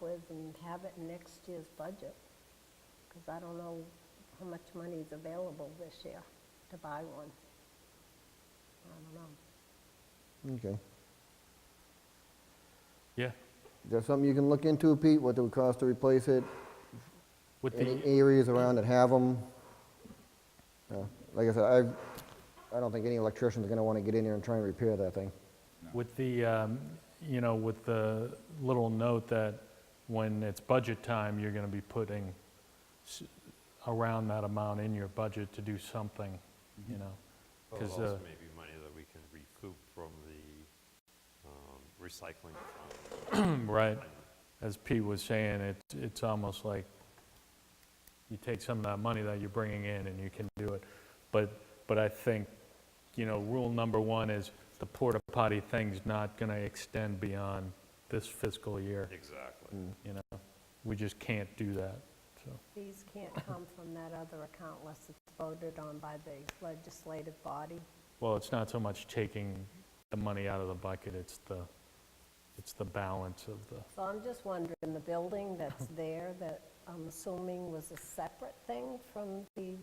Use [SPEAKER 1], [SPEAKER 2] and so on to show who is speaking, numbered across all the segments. [SPEAKER 1] with and have it in next year's budget, because I don't know how much money is available this year to buy one. I don't know.
[SPEAKER 2] Okay.
[SPEAKER 3] Yeah,
[SPEAKER 2] Is there something you can look into, Pete, what it would cost to replace it?
[SPEAKER 3] with
[SPEAKER 2] Any
[SPEAKER 3] the,
[SPEAKER 2] areas around that have them? Like I said, I, I don't think any electrician's gonna wanna get in there and try and repair that thing.
[SPEAKER 3] with the, um, you know, with the little note that when it's budget time, you're going to be putting s- around that amount in your budget to do something, you know?
[SPEAKER 4] Mm-hmm. Well,
[SPEAKER 3] 'cause,
[SPEAKER 4] also
[SPEAKER 3] uh,
[SPEAKER 4] maybe money that we can recoup from the um, recycling fund.
[SPEAKER 3] uh, Right. As Pete was saying, it's, it's almost like you take some of that money that you're bringing in and you can do it. But, but I think, you know, rule number one is the porta potty thing's not going to extend beyond this fiscal year,
[SPEAKER 4] Exactly.
[SPEAKER 3] you know? We just can't do that, so.
[SPEAKER 1] These can't come from that other account unless it's voted on by the legislative body.
[SPEAKER 3] Well, it's not so much taking the money out of the bucket, it's the, it's the balance of the,
[SPEAKER 1] So I'm just wondering, the building that's there, that I'm assuming was a separate thing from the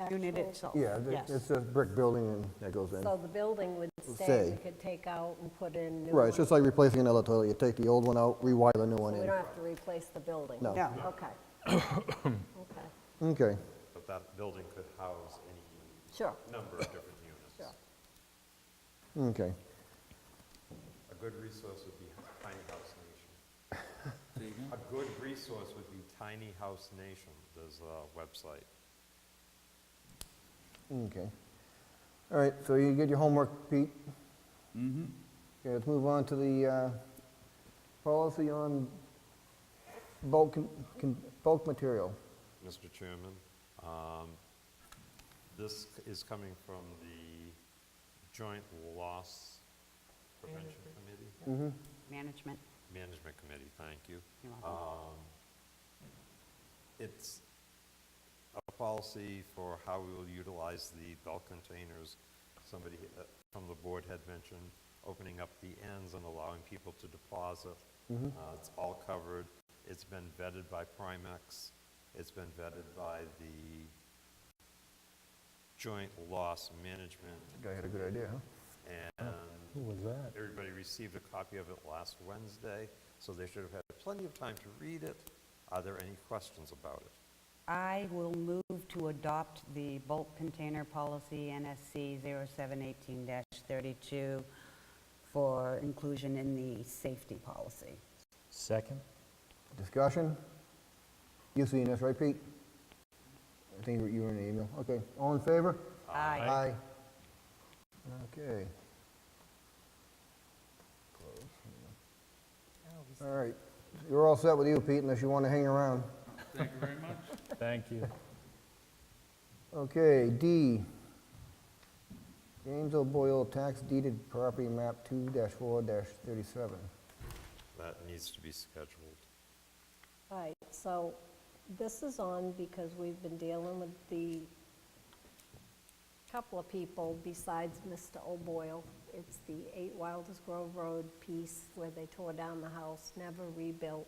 [SPEAKER 1] actual...
[SPEAKER 5] Unit itself.
[SPEAKER 2] Yeah, th-
[SPEAKER 5] Yes.
[SPEAKER 2] it's a brick building and that goes in.
[SPEAKER 1] So the building would stay,
[SPEAKER 2] Stay.
[SPEAKER 1] we could take out and put in new
[SPEAKER 2] Right, it's just
[SPEAKER 1] ones.
[SPEAKER 2] like replacing another toilet, you take the old one out, rewire the new one
[SPEAKER 1] We
[SPEAKER 2] in.
[SPEAKER 1] don't have to replace the building?
[SPEAKER 2] No.
[SPEAKER 5] No.
[SPEAKER 1] Okay. Okay,
[SPEAKER 2] Okay,
[SPEAKER 4] But that building could house any
[SPEAKER 1] sure,
[SPEAKER 4] number of different units.
[SPEAKER 1] sure.
[SPEAKER 2] okay.
[SPEAKER 4] A good resource would be Tiny House Nation. A good resource would be Tiny House Nation, there's a website.
[SPEAKER 2] Okay. All right, so you get your homework, Pete? Mm-hmm. Okay, let's move on to the uh, policy on bulk, con- bulk material.
[SPEAKER 4] Mr. Chairman. Um, This c- is coming from the Joint Loss Prevention Committee?
[SPEAKER 5] Management,
[SPEAKER 4] Management Committee, thank you.
[SPEAKER 5] you're welcome.
[SPEAKER 4] It's a policy for how we will utilize the bulk containers. Somebody uh, from the board had mentioned opening up the ends and allowing people to deposit.
[SPEAKER 3] Mm-hmm.
[SPEAKER 4] Uh, It's all covered. It's been vetted by Primex. It's been vetted by the Joint Loss Management,
[SPEAKER 2] Guy had a good idea, huh?
[SPEAKER 4] and
[SPEAKER 3] who was that?
[SPEAKER 4] Everybody received a copy of it last Wednesday, so they should have had plenty of time to read it. Are there any questions about it?
[SPEAKER 5] I will move to adopt the bulk container policy NSC 0718-32 for inclusion in the safety policy.
[SPEAKER 3] Second?
[SPEAKER 2] Discussion? You seen this, right, Pete? I think you were- you were in the email. Okay, all in favor?
[SPEAKER 5] Aye.
[SPEAKER 2] Aye. Okay. All right, you're all set with you, Pete, unless you want to hang around.
[SPEAKER 3] Thank you.
[SPEAKER 2] Okay, D. James O'Boyle, tax deeded property map 2-4-37.
[SPEAKER 4] That needs to be scheduled.
[SPEAKER 1] Right, so this is on because we've been dealing with the couple of people besides Mr. O'Boyle. It's the 8 Wilders Grove Road piece where they tore down the house, never rebuilt,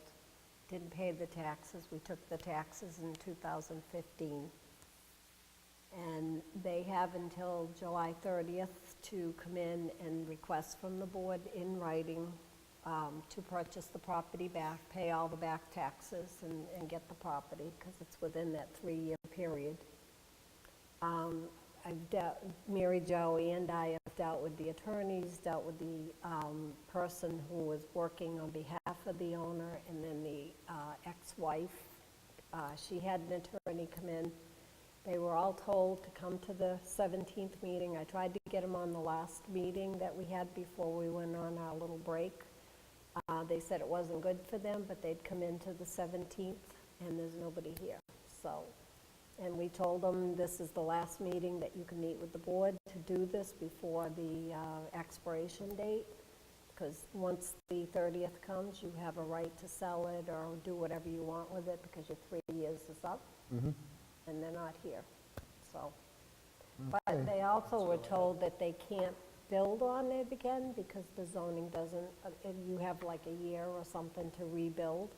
[SPEAKER 1] didn't pay the taxes. We took the taxes in 2015. And they have until July 30th to come in and request from the board in writing um, to purchase the property back, pay all the back taxes and, and get the property because it's within that three-year period. Um, I've dealt, Mary Jo and I have dealt with the attorneys, dealt with the um, person who was working on behalf of the owner and then the uh, ex-wife. Uh, She had an attorney come in. They were all told to come to the 17th meeting. I tried to get them on the last meeting that we had before we went on our little break. Uh, They said it wasn't good for them, but they'd come into the 17th, and there's nobody here. So, and we told them, this is the last meeting that you can meet with the board to do this before the uh, expiration date, because once the 30th comes, you have a right to sell it or do whatever you want with it, because your three years is up. And they're not here, so. But they also were told that they can't build on it again because the zoning doesn't, uh, and you have like a year or something to rebuild.